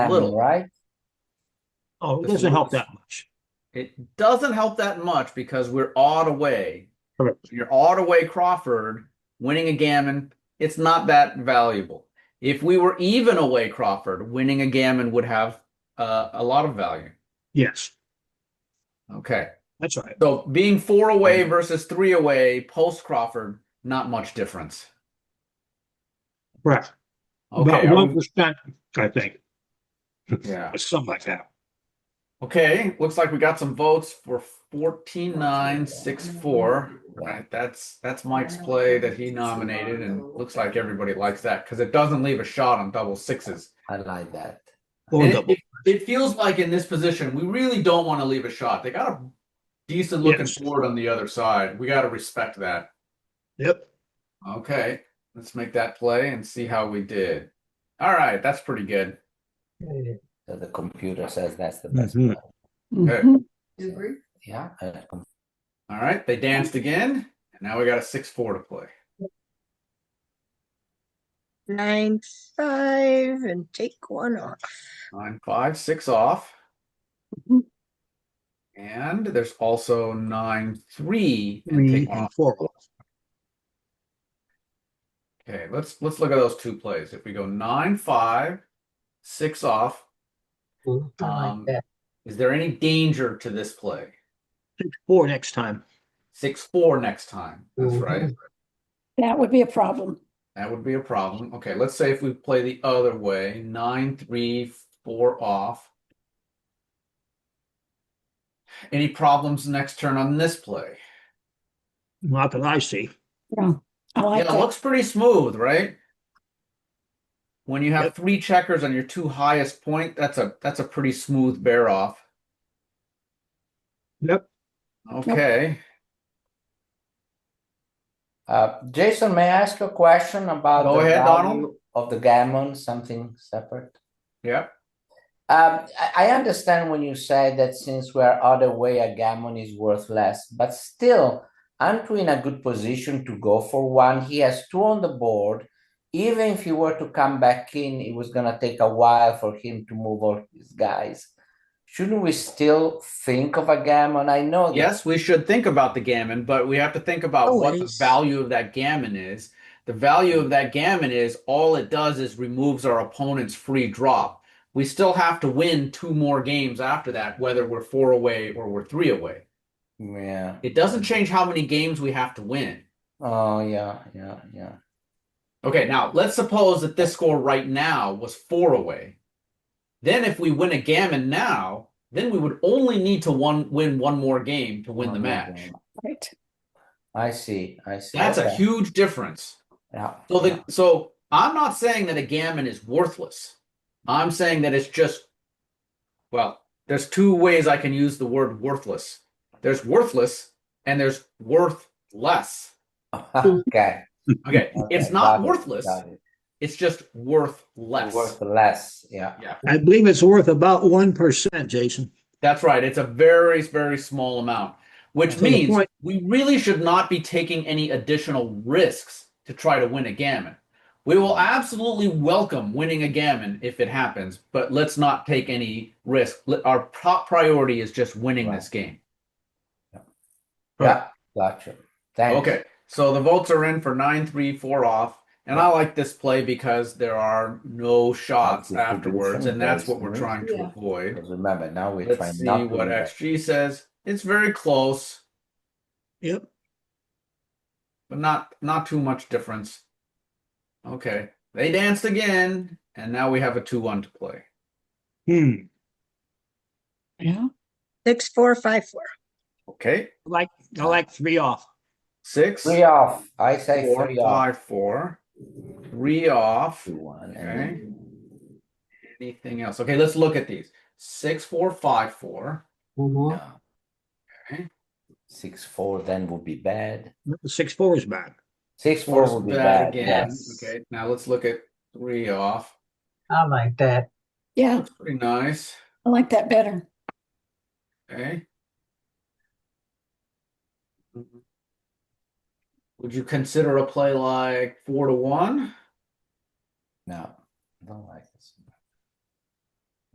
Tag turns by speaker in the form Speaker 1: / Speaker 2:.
Speaker 1: Little.
Speaker 2: right?
Speaker 3: Oh, it
Speaker 1: The
Speaker 3: doesn't help
Speaker 1: fours.
Speaker 3: that much.
Speaker 1: It doesn't help that much because we're odd away.
Speaker 3: Correct.
Speaker 1: You're odd away Crawford winning a gammon. It's not that valuable. If we were even away Crawford, winning a gammon would have uh, a lot of value.
Speaker 3: Yes,
Speaker 1: Okay.
Speaker 3: that's right.
Speaker 1: So being four away versus three away post Crawford, not much difference.
Speaker 3: Right.
Speaker 1: Okay.
Speaker 3: About
Speaker 1: are
Speaker 3: one
Speaker 1: we-
Speaker 3: percent, I think,
Speaker 1: yeah.
Speaker 3: or something like that.
Speaker 1: Okay. Looks like we got some votes for 14964. Right. That's that's Mike's play that he nominated, and looks like everybody likes that because it doesn't leave a shot on double sixes.
Speaker 2: I like that.
Speaker 3: Or
Speaker 1: And it-
Speaker 3: double.
Speaker 1: It, it feels like in this position, we really don't want to leave a shot. They got a decent looking
Speaker 3: Yes.
Speaker 1: board on the other side. We got to respect that.
Speaker 3: Yep.
Speaker 1: Okay, let's make that play and see how we did. All right, that's pretty good.
Speaker 2: So The computer says that's the best.
Speaker 3: Mhm.
Speaker 2: one.
Speaker 1: Okay.
Speaker 4: Do you agree?
Speaker 2: Yeah, uh, com-
Speaker 1: All right, they danced again, and now we got a six four to play.
Speaker 5: nine five and take one off.
Speaker 1: Nine five six off,
Speaker 6: Mm-hmm.
Speaker 5: Mhm.
Speaker 1: and there's also nine three. and
Speaker 3: Three
Speaker 1: take one
Speaker 3: and
Speaker 1: off.
Speaker 3: four.
Speaker 1: Okay, let's let's look at those two plays. If we go nine five, six off, um, is there any danger to this play?
Speaker 3: Six, four next time.
Speaker 1: Six four next time. That's right.
Speaker 6: Mm-hmm. That would be a problem.
Speaker 1: That would be a problem. Okay, let's say if we play the other way, nine, three, four off. Any problems next turn on this play?
Speaker 3: Not that I see.
Speaker 6: Yeah, I like
Speaker 1: Yeah, it
Speaker 6: that.
Speaker 1: looks pretty smooth, right? When you have
Speaker 3: Yep.
Speaker 1: three checkers on your two highest point, that's a that's a pretty smooth bear off.
Speaker 3: Yep.
Speaker 1: Okay.
Speaker 2: Uh, Jason, may I ask you a question about
Speaker 1: Go
Speaker 2: the
Speaker 1: ahead, Donald.
Speaker 2: value of the gammon, something separate?
Speaker 1: Yep.
Speaker 2: Um, I, I understand when you say that since we're out of way, a gammon is worth less, but still, aren't we in a good position to go for one? He has two on the board. Even if he were to come back in, it was gonna take a while for him to move all his guys. Shouldn't we still think of a gammon? I know that
Speaker 1: Yes, we should think about the gammon, but we have to think
Speaker 3: Oh,
Speaker 1: about what the
Speaker 5: Always.
Speaker 1: value of that gammon is. The value of that gammon is all it does is removes our opponent's free drop. We still have to win two more games after that, whether we're four away or we're three away.
Speaker 2: Yeah.
Speaker 1: It doesn't change how many games we have to win.
Speaker 2: Oh, yeah, yeah, yeah.
Speaker 1: Okay, now let's suppose that this score right now was four away. Then, if we win a gammon now, then we would only need to one win one more game to win the
Speaker 2: Oh,
Speaker 1: match.
Speaker 2: okay.
Speaker 6: Right.
Speaker 2: I see. I see.
Speaker 1: That's a
Speaker 2: Okay.
Speaker 1: huge difference.
Speaker 2: Yeah.
Speaker 1: So the
Speaker 2: yeah.
Speaker 1: so I'm not saying that a gammon is worthless. I'm saying that it's just well, there's two ways I can use the word worthless. There's worthless and there's worth less.
Speaker 2: Okay.
Speaker 1: Okay, it's
Speaker 2: okay,
Speaker 1: not
Speaker 2: got it,
Speaker 1: worthless.
Speaker 2: got it.
Speaker 1: It's just worth less.
Speaker 2: Worth less. Yeah.
Speaker 1: Yeah.
Speaker 3: I believe it's worth about one percent, Jason.
Speaker 1: That's right. It's a very very small amount, which
Speaker 3: So the
Speaker 1: means
Speaker 3: point-
Speaker 1: we really should not be taking any additional risks to try to win a gammon. We will absolutely welcome winning a gammon if it happens, but let's not take any risk. Let- Our top priority is just winning
Speaker 2: Right.
Speaker 1: this game.
Speaker 2: Yeah. Gotcha. Thanks.
Speaker 1: Okay. So the votes are in for nine, three, four off. And I like this play because there are no shots
Speaker 2: That's a good
Speaker 1: afterwards, and
Speaker 2: example,
Speaker 1: that's what we're
Speaker 2: isn't it?
Speaker 1: trying to
Speaker 4: Yeah.
Speaker 1: avoid.
Speaker 2: Because Remember, now we're
Speaker 1: Let's
Speaker 2: trying
Speaker 1: see
Speaker 2: not to
Speaker 1: what
Speaker 2: do that.
Speaker 1: XG says. It's very close.
Speaker 3: Yep.
Speaker 1: but not not too much difference. Okay, they danced again, and now we have a two-one to play.
Speaker 3: Hmm.
Speaker 6: Yeah.
Speaker 5: Six, four, five, four.
Speaker 1: Okay,
Speaker 3: I Like, I like three off.
Speaker 1: six,
Speaker 2: Three off. I say
Speaker 1: four,
Speaker 2: three off.
Speaker 1: five, four. Three off.
Speaker 2: Two, one, and
Speaker 1: Okay.
Speaker 2: then- Mm-hmm.
Speaker 1: Anything else? Okay, let's look at these. Six, four, five, four.
Speaker 2: Yeah.
Speaker 1: Okay.
Speaker 2: Six four then would be bad.
Speaker 3: Six, four is bad.
Speaker 2: Six four
Speaker 1: Four's
Speaker 2: would be
Speaker 1: bad
Speaker 2: bad.
Speaker 1: again.
Speaker 2: yes.
Speaker 1: Okay, now let's look at three off.
Speaker 4: I like that.
Speaker 6: Yeah,
Speaker 1: That's pretty nice.
Speaker 6: I like that better.
Speaker 1: Okay. Mm-hmm. Would you consider a play like four to one?
Speaker 2: No, don't like